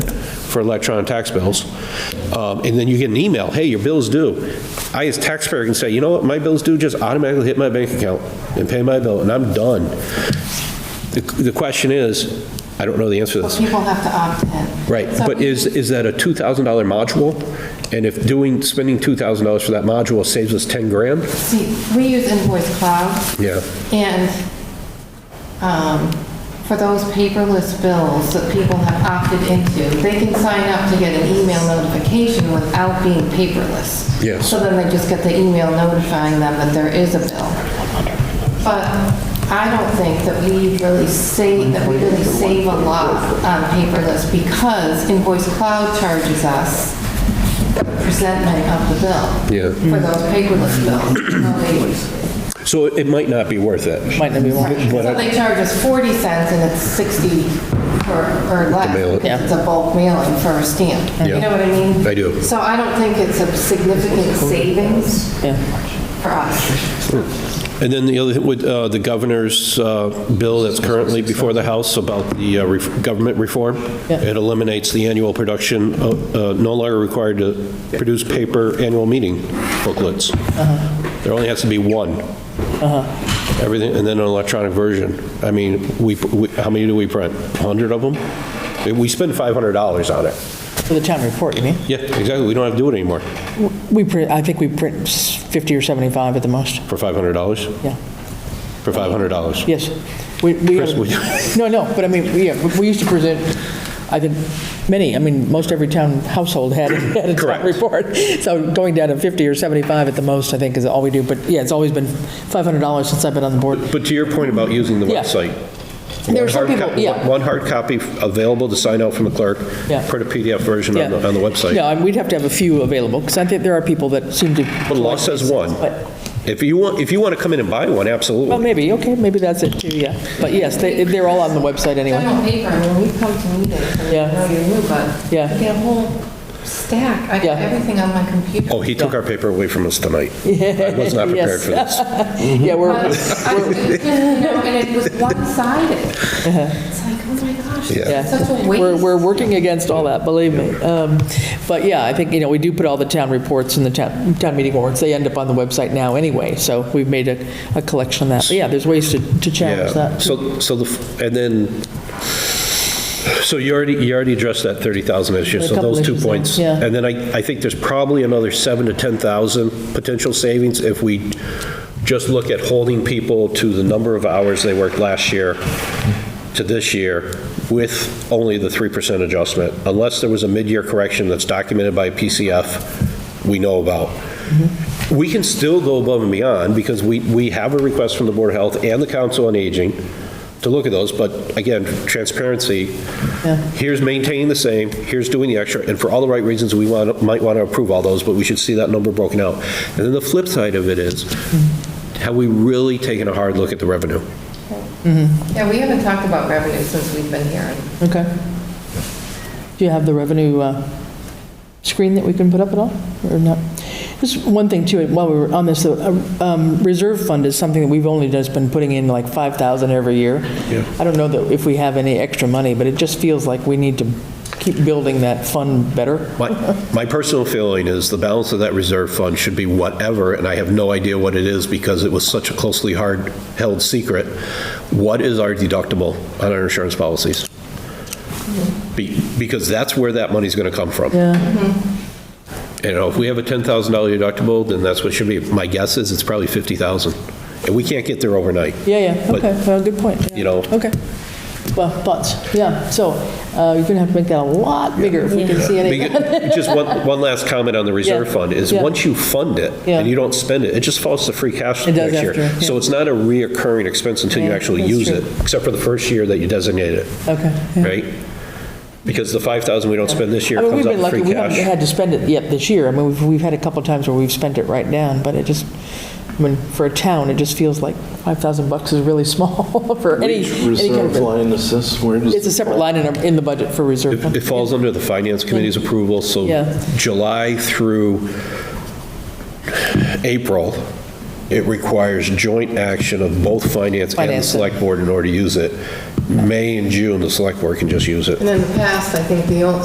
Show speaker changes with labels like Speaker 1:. Speaker 1: for electronic tax bills. Um, And then you get an email, hey, your bill's due. I, as taxpayer, can say, you know what, my bill's due, just automatically hit my bank account and pay my bill, and I'm done. The the question is, I don't know the answer to this.
Speaker 2: People have to opt in.
Speaker 1: Right,
Speaker 2: So-
Speaker 1: but is, is that a $2,000 module? And if doing, spending $2,000 for that module saves us 10 grand?
Speaker 2: See, we use Invoice Cloud.
Speaker 1: Yeah.
Speaker 2: And um, for those paperless bills that people have opted into, they can sign up to get an email notification without being paperless.
Speaker 1: Yes.
Speaker 2: So then they just get the email notifying them that there is a bill. But um, I don't think that we really save, that we really save a lot on paperless because Invoice Cloud charges us the presentment of the bill.
Speaker 1: Yeah.
Speaker 2: For those paperless bills. Nobody-
Speaker 1: So it might not be worth it.
Speaker 3: Might not be one.
Speaker 2: so they charge us 40 cents and it's 60 or or less.
Speaker 1: mail it.
Speaker 2: It's a bulk mailing for a stamp. You know what I mean?
Speaker 1: I do.
Speaker 2: So I don't think it's a significant savings for us.
Speaker 1: And then the other, with uh, the governor's uh, bill that's currently before the House about the uh, ref- government reform, it eliminates the annual production, uh, uh, no longer required to produce paper annual meeting booklets. There only has to be one. Everything, and then an electronic version. I mean, we, we- how many do we print? 100 of them? We spend $500 on it.
Speaker 3: For the town report, you mean?
Speaker 1: Yeah, exactly, we don't have to do it anymore
Speaker 3: We print, I think we print s- 50 or 75 at the most,
Speaker 1: for $500,
Speaker 3: yeah.
Speaker 1: for $500.
Speaker 3: Yes. We, we,
Speaker 1: Chris, would you-
Speaker 3: no, no, but I mean, we- yeah, we used to present, I think, many, I mean, most every town household had, had a town
Speaker 1: Correct.
Speaker 3: report. So going down to 50 or 75 at the most, I think, is all we do. But yeah, it's always been $500 since I've been on the board.
Speaker 1: But to your point about using the
Speaker 3: Yeah.
Speaker 1: website.
Speaker 3: There are
Speaker 1: one
Speaker 3: some
Speaker 1: hard
Speaker 3: people-
Speaker 1: copy-
Speaker 3: yeah.
Speaker 1: One hard copy available to sign out from the clerk,
Speaker 3: Yeah.
Speaker 1: print a PDF version on the, on the
Speaker 3: No,
Speaker 1: website.
Speaker 3: and we'd have to have a few available, because I think there are people that seem to.
Speaker 1: But the law says one.
Speaker 3: But-
Speaker 1: If you want, if you want to come in and buy one,
Speaker 3: Well,
Speaker 1: absolutely.
Speaker 3: maybe, okay, maybe that's it too, yeah. But yes, they, they're all on the website anyway.
Speaker 2: General paper, I mean, we come to meetings, and
Speaker 3: Yeah.
Speaker 2: I know you're new, but
Speaker 3: Yeah.
Speaker 2: I get a whole stack. I
Speaker 3: Yeah.
Speaker 2: got everything on my computer.
Speaker 1: Oh, he took
Speaker 3: Yeah.
Speaker 1: our paper away from us tonight. I was not prepared
Speaker 3: Yes.
Speaker 1: for this.
Speaker 3: Yeah, we're,
Speaker 2: But I- you know, And it was one-sided. It's like, oh my gosh,
Speaker 1: Yeah.
Speaker 2: it's such a waste.
Speaker 3: Uh-huh. We're, we're working against all that, believe me. Um, But yeah, I think, you know, we do put all the town reports and the town, town meeting warrants, they end up on the website now anyway, so we've made a, a collection of that. But yeah, there's ways to, to challenge
Speaker 1: Yeah,
Speaker 3: that.
Speaker 1: so, so the, and then, so you already, you already addressed that 30,000 issue,
Speaker 3: A
Speaker 1: so
Speaker 3: couple
Speaker 1: those two
Speaker 3: issues,
Speaker 1: points.
Speaker 3: yeah.
Speaker 1: And then I, I think there's probably another 7 to 10,000 potential savings if we just look at holding people to the number of hours they worked last year to this year with only the 3% adjustment, unless there was a mid-year correction that's documented by PCF we know about. We can still go above and beyond, because we, we have a request from the Board of Health and the Council on Aging to look at those, but again, transparency, here's maintaining the same, here's doing the extra, and for all the right reasons, we want, might want to approve all those, but we should see that number broken out. And then the flip side of it is, have we really taken a hard look at the revenue?
Speaker 2: Yeah, we haven't talked about revenue since we've been here.
Speaker 3: Okay. Do you have the revenue uh, screen that we can put up at all, or not? Just one thing too, while we were on this, uh, um, reserve fund is something that we've only just been putting in like 5,000 every year. I don't know that if we have any extra money, but it just feels like we need to keep building that fund better.
Speaker 1: My, my personal feeling is the balance of that reserve fund should be whatever, and I have no idea what it is because it was such a closely hard-held secret. What is our deductible on our insurance policies? Be- Because that's where that money's going to come from.
Speaker 3: Yeah,
Speaker 1: You know, if we have a $10,000 deductible, then that's what should be. My guess is it's probably 50,000. And we can't get there overnight.
Speaker 3: yeah, yeah,
Speaker 1: But-
Speaker 3: okay, well, good point. yeah.
Speaker 1: you know-
Speaker 3: Okay. Well, thoughts, yeah, so uh, you're going to have to make that a lot bigger if we can see any.
Speaker 1: Because- Just one, one last comment on the reserve
Speaker 3: Yeah.
Speaker 1: fund is,
Speaker 3: Yeah.
Speaker 1: once you fund it
Speaker 3: Yeah.
Speaker 1: and you don't spend it, it just falls to free cash
Speaker 3: It does
Speaker 1: next year.
Speaker 3: after, yeah.
Speaker 1: So it's not a reoccurring expense until you
Speaker 3: Yeah,
Speaker 1: actually
Speaker 3: that's
Speaker 1: use
Speaker 3: true.
Speaker 1: it, except for the first year that you designate it,
Speaker 3: Okay. yeah.
Speaker 1: right? Because the 5,000 we don't spend this year
Speaker 3: I mean, we've
Speaker 1: comes out
Speaker 3: been
Speaker 1: of
Speaker 3: lucky,
Speaker 1: free
Speaker 3: we haven't
Speaker 1: cash.
Speaker 3: had to spend it yet this year. I mean, we've, we've had a couple times where we've spent it right down, but it just, I mean, for a town, it just feels like 5,000 bucks is really small for any,
Speaker 4: Which
Speaker 3: any kind
Speaker 4: Reserve
Speaker 3: of,
Speaker 4: line assist, where does?
Speaker 3: it's a separate line in, our- in the budget for reserve.
Speaker 1: It
Speaker 3: fund.
Speaker 1: it falls under the finance committee's approval, so
Speaker 3: Yeah.
Speaker 1: July through April, it requires joint action of both finance and the
Speaker 3: Finance.
Speaker 1: select board in order to use it. May and June, the select board can just use it.
Speaker 2: And in the past, I think the old,